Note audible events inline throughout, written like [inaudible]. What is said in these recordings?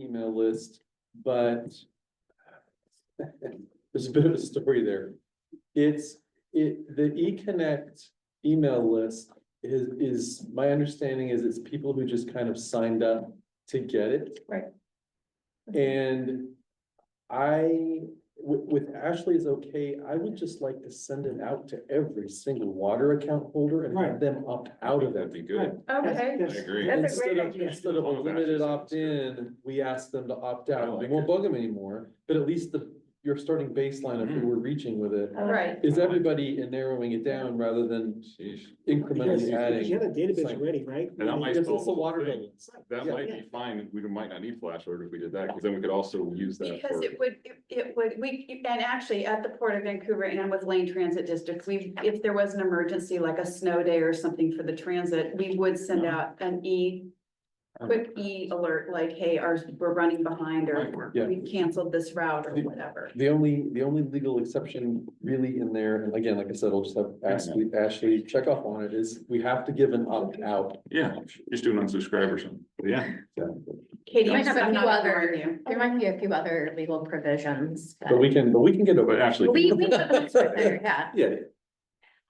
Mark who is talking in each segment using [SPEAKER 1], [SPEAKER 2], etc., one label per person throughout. [SPEAKER 1] email list, but [laughs] there's a bit of a story there. It's, it, the eConnect email list is, is, my understanding is it's people who just kind of signed up to get it.
[SPEAKER 2] Right.
[SPEAKER 1] And I, with, with Ashley's okay, I would just like to send it out to every single water account holder and have
[SPEAKER 3] Right.
[SPEAKER 1] them opt out of
[SPEAKER 4] That'd
[SPEAKER 1] it.
[SPEAKER 4] be
[SPEAKER 3] Right.
[SPEAKER 4] good.
[SPEAKER 2] Okay,
[SPEAKER 4] I
[SPEAKER 3] Yes.
[SPEAKER 4] agree.
[SPEAKER 2] That's a great
[SPEAKER 1] Instead of,
[SPEAKER 2] idea.
[SPEAKER 1] instead of a
[SPEAKER 4] All of
[SPEAKER 1] limited
[SPEAKER 4] Ashley's
[SPEAKER 1] opt-in, we ask them to opt
[SPEAKER 4] I
[SPEAKER 1] out. We
[SPEAKER 4] like
[SPEAKER 1] won't
[SPEAKER 4] it.
[SPEAKER 1] bug them anymore, but at least the, your starting baseline of who
[SPEAKER 4] Mhm.
[SPEAKER 1] we're reaching with it
[SPEAKER 2] I like
[SPEAKER 5] Right.
[SPEAKER 2] it.
[SPEAKER 1] is everybody and narrowing it down rather than
[SPEAKER 4] Sheesh.
[SPEAKER 3] Because
[SPEAKER 1] incrementally
[SPEAKER 3] you you
[SPEAKER 1] adding.
[SPEAKER 3] have a database
[SPEAKER 1] Like-
[SPEAKER 3] already, right?
[SPEAKER 4] And that might
[SPEAKER 1] Because it's
[SPEAKER 4] solve
[SPEAKER 1] the
[SPEAKER 4] the
[SPEAKER 1] water
[SPEAKER 4] thing.
[SPEAKER 1] bills.
[SPEAKER 4] That
[SPEAKER 1] Yeah.
[SPEAKER 4] might be fine. We might not need flash order if we did that, because then we could also use that
[SPEAKER 5] Because
[SPEAKER 4] for.
[SPEAKER 5] it would, it- it would, we, and actually at the Port of Vancouver and with Lane Transit District, we, if there was an emergency, like a snow day or something for the transit, we would send out an E. Quick E alert, like, hey, our, we're running behind
[SPEAKER 4] might
[SPEAKER 5] or
[SPEAKER 4] work.
[SPEAKER 1] Yeah.
[SPEAKER 5] we've canceled this route or whatever.
[SPEAKER 1] The only, the only legal exception really in there, and again, like I said, I'll just have Ashley, Ashley check off on it, is we have to give an opt-out.
[SPEAKER 4] Yeah, just do an unsubscribe or something. But Yeah,
[SPEAKER 5] Katie,
[SPEAKER 2] You might
[SPEAKER 5] I'm
[SPEAKER 2] have a
[SPEAKER 5] so
[SPEAKER 2] few
[SPEAKER 5] not
[SPEAKER 2] other-
[SPEAKER 5] ignoring you.
[SPEAKER 2] There might be a few other legal provisions.
[SPEAKER 1] But we can, but we can get over.
[SPEAKER 4] but
[SPEAKER 1] it.
[SPEAKER 4] actually.
[SPEAKER 2] We, we, can look for there, yeah.
[SPEAKER 1] Yeah,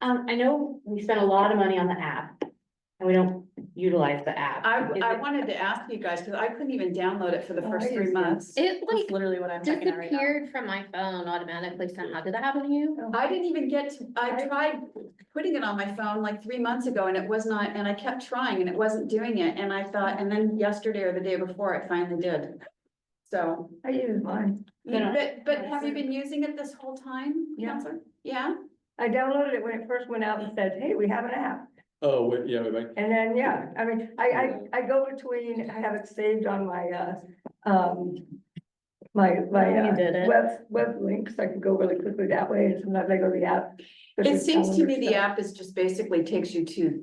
[SPEAKER 2] Um, I know we spent a lot of money on the app and we don't utilize the app.
[SPEAKER 5] I,
[SPEAKER 2] Is
[SPEAKER 5] I
[SPEAKER 2] it-
[SPEAKER 5] wanted to ask you guys, because I couldn't even download it for the
[SPEAKER 2] Oh,
[SPEAKER 5] first
[SPEAKER 2] I
[SPEAKER 5] three
[SPEAKER 2] see.
[SPEAKER 5] months.
[SPEAKER 6] It
[SPEAKER 5] That's
[SPEAKER 6] like
[SPEAKER 5] literally what I'm checking out right now.
[SPEAKER 6] disappeared from my phone automatically somehow. Did that happen to
[SPEAKER 2] Oh,
[SPEAKER 6] you?
[SPEAKER 5] I didn't even get, to- I tried putting it on my phone like three months ago and it was not, and I kept trying and it wasn't doing it. And I thought, and then yesterday or the day before, it finally did. So,
[SPEAKER 7] I use mine.
[SPEAKER 2] Yeah.
[SPEAKER 5] but, but have you been using it this whole time,
[SPEAKER 7] Yeah.
[SPEAKER 5] Counselor? Yeah?
[SPEAKER 7] I downloaded it when it first went out and said, hey, we have an app.
[SPEAKER 1] oh, wait, yeah, wait, wait.
[SPEAKER 7] And then, yeah, I mean, I, I, I go between, I have it saved on my, uh, um, my, my
[SPEAKER 2] You
[SPEAKER 7] uh,
[SPEAKER 2] did it.
[SPEAKER 7] web, web links. I can go really quickly that way. And sometimes I go to the app. but
[SPEAKER 5] It
[SPEAKER 7] it's
[SPEAKER 5] seems to me
[SPEAKER 7] calendar
[SPEAKER 5] the
[SPEAKER 7] stuff.
[SPEAKER 5] app is just basically takes you to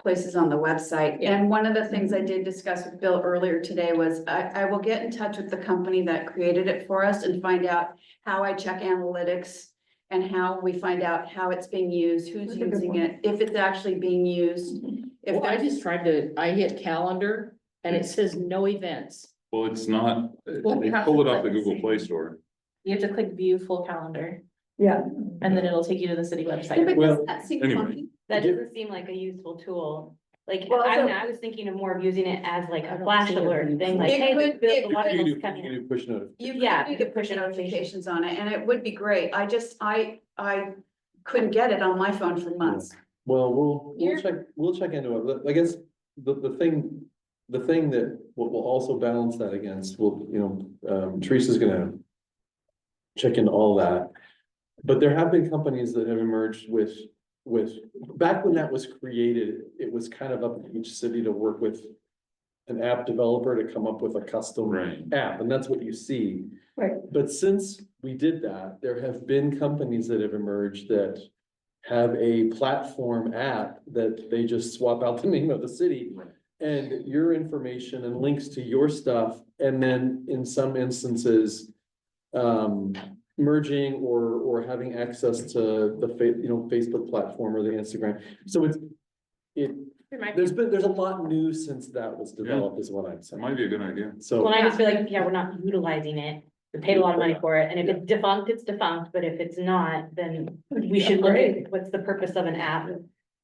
[SPEAKER 5] places on the website.
[SPEAKER 2] Yeah.
[SPEAKER 5] And one of the things I did discuss with Bill earlier today was I, I will get in touch with the company that created it for us and find out how I check analytics and how we find out how it's being used, who's
[SPEAKER 7] That's a good
[SPEAKER 5] using
[SPEAKER 7] one.
[SPEAKER 5] it, if it's actually being used. If
[SPEAKER 8] Well, I
[SPEAKER 5] there's,
[SPEAKER 8] just tried to, I hit calendar and it says no events.
[SPEAKER 4] Well, it's not, uh, they
[SPEAKER 2] Well, we have
[SPEAKER 4] pull it
[SPEAKER 2] to
[SPEAKER 4] off the
[SPEAKER 2] click
[SPEAKER 4] Google
[SPEAKER 2] see.
[SPEAKER 4] Play Store.
[SPEAKER 2] You have to click view full calendar
[SPEAKER 7] Yeah,
[SPEAKER 2] and then it'll take you to the city
[SPEAKER 5] Yeah, but
[SPEAKER 2] website.
[SPEAKER 1] Well,
[SPEAKER 5] doesn't that seem
[SPEAKER 4] anyway.
[SPEAKER 5] funky?
[SPEAKER 1] I
[SPEAKER 2] That
[SPEAKER 1] do-
[SPEAKER 2] doesn't seem like a useful tool. Like,
[SPEAKER 7] Well,
[SPEAKER 2] I don't
[SPEAKER 7] so-
[SPEAKER 2] know, I was thinking of more of using it as like
[SPEAKER 8] I
[SPEAKER 2] a
[SPEAKER 8] don't
[SPEAKER 2] flash
[SPEAKER 8] see it
[SPEAKER 2] alert
[SPEAKER 8] really.
[SPEAKER 2] thing, like,
[SPEAKER 5] It
[SPEAKER 2] hey,
[SPEAKER 5] could-
[SPEAKER 2] the- the
[SPEAKER 5] it
[SPEAKER 2] the water
[SPEAKER 1] You
[SPEAKER 2] bill's
[SPEAKER 1] do-
[SPEAKER 2] coming in.
[SPEAKER 1] you do push notifications.
[SPEAKER 5] You
[SPEAKER 2] Yeah,
[SPEAKER 5] could do the
[SPEAKER 2] push
[SPEAKER 5] push
[SPEAKER 2] notification.
[SPEAKER 5] notifications on it and it would be great. I just, I, I couldn't get it on my phone for months.
[SPEAKER 1] Well, we'll,
[SPEAKER 5] Here.
[SPEAKER 1] we'll check, we'll check into it, But I guess the, the thing, the thing that will, will also balance that against, will, you know, um, Teresa's gonna. Check into all that, but there have been companies that have emerged with, with, back when that was created, it was kind of up to each city to work with. An app developer to come up with a custom
[SPEAKER 4] Right.
[SPEAKER 1] app, and that's what you see.
[SPEAKER 7] Right.
[SPEAKER 1] But since we did that, there have been companies that have emerged that have a platform app that they just swap out the [laughs] name of the city
[SPEAKER 4] Right.
[SPEAKER 1] and your information and links to your stuff, and then in some instances, um, merging or, or having access to the fa- you know, Facebook platform or the Instagram. So it's, it,
[SPEAKER 2] There might be-
[SPEAKER 1] there's been, there's a lot new since that was developed is what I'm
[SPEAKER 4] That
[SPEAKER 1] saying.
[SPEAKER 4] might be a good idea.
[SPEAKER 1] So.
[SPEAKER 2] Well, and I just feel like, yeah, we're not utilizing it. We paid a lot of money for it, and if it's defunct, it's defunct, but if it's not, then we should look at what's the purpose of an app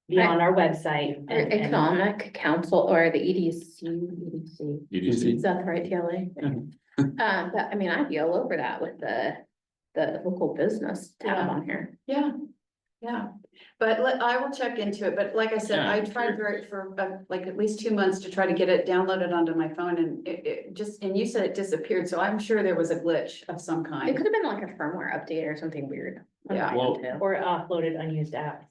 [SPEAKER 2] beyond our website.
[SPEAKER 6] E-
[SPEAKER 2] and- and-
[SPEAKER 6] Economic Council or the E EDC, EDC,
[SPEAKER 4] EDC.
[SPEAKER 6] is that the right TLA? Um,
[SPEAKER 2] Mm-hmm.
[SPEAKER 6] but I mean, I'd be all over that with the, the local business tab
[SPEAKER 5] Yeah.
[SPEAKER 6] on here.
[SPEAKER 5] Yeah, yeah, but let, I will check into it, but like I said,
[SPEAKER 4] Yeah,
[SPEAKER 5] I tried for, for uh, like at least two months to try to get it downloaded onto my phone and it, it just, and you said it disappeared, so I'm sure there was a glitch of some
[SPEAKER 6] It
[SPEAKER 5] kind.
[SPEAKER 6] could have been like a firmware update or something weird.
[SPEAKER 5] Yeah.
[SPEAKER 4] Well,
[SPEAKER 2] Or offloaded unused apps.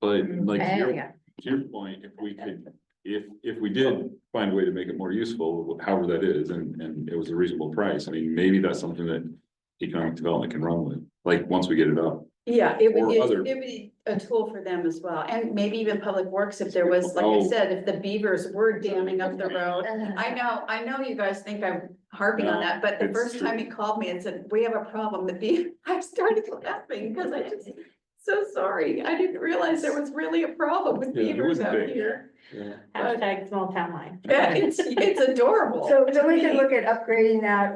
[SPEAKER 4] But like, to
[SPEAKER 6] Oh,
[SPEAKER 4] your-
[SPEAKER 6] yeah.
[SPEAKER 4] to your point, if we could, if, if we did find a way to make it more useful, however that is, and, and it was a reasonable price, I mean, maybe that's something that economic development can run with, like, once we get it up.
[SPEAKER 5] Yeah, it would,
[SPEAKER 4] Or
[SPEAKER 5] be-
[SPEAKER 4] other-
[SPEAKER 5] it would be a tool for them as well, and maybe even Public Works if there was, like I
[SPEAKER 4] Oh.
[SPEAKER 5] said, if the beavers were damming up the road.
[SPEAKER 7] [laughs]
[SPEAKER 5] I know, I know you guys think I'm harping on
[SPEAKER 4] No,
[SPEAKER 5] that, but the
[SPEAKER 4] it's
[SPEAKER 5] [laughs] first time he called me and said, we have a problem, the bee, I started laughing because I just. so sorry. I didn't realize there was really a problem with
[SPEAKER 1] Yeah, it
[SPEAKER 5] theaters
[SPEAKER 4] wasn't
[SPEAKER 5] out
[SPEAKER 4] big. [laughs]
[SPEAKER 5] here.
[SPEAKER 1] yeah.
[SPEAKER 2] Hashtag small town life.
[SPEAKER 5] Yeah, it's, it's adorable.
[SPEAKER 7] So,
[SPEAKER 5] to
[SPEAKER 7] so we
[SPEAKER 5] me.
[SPEAKER 7] can look at upgrading that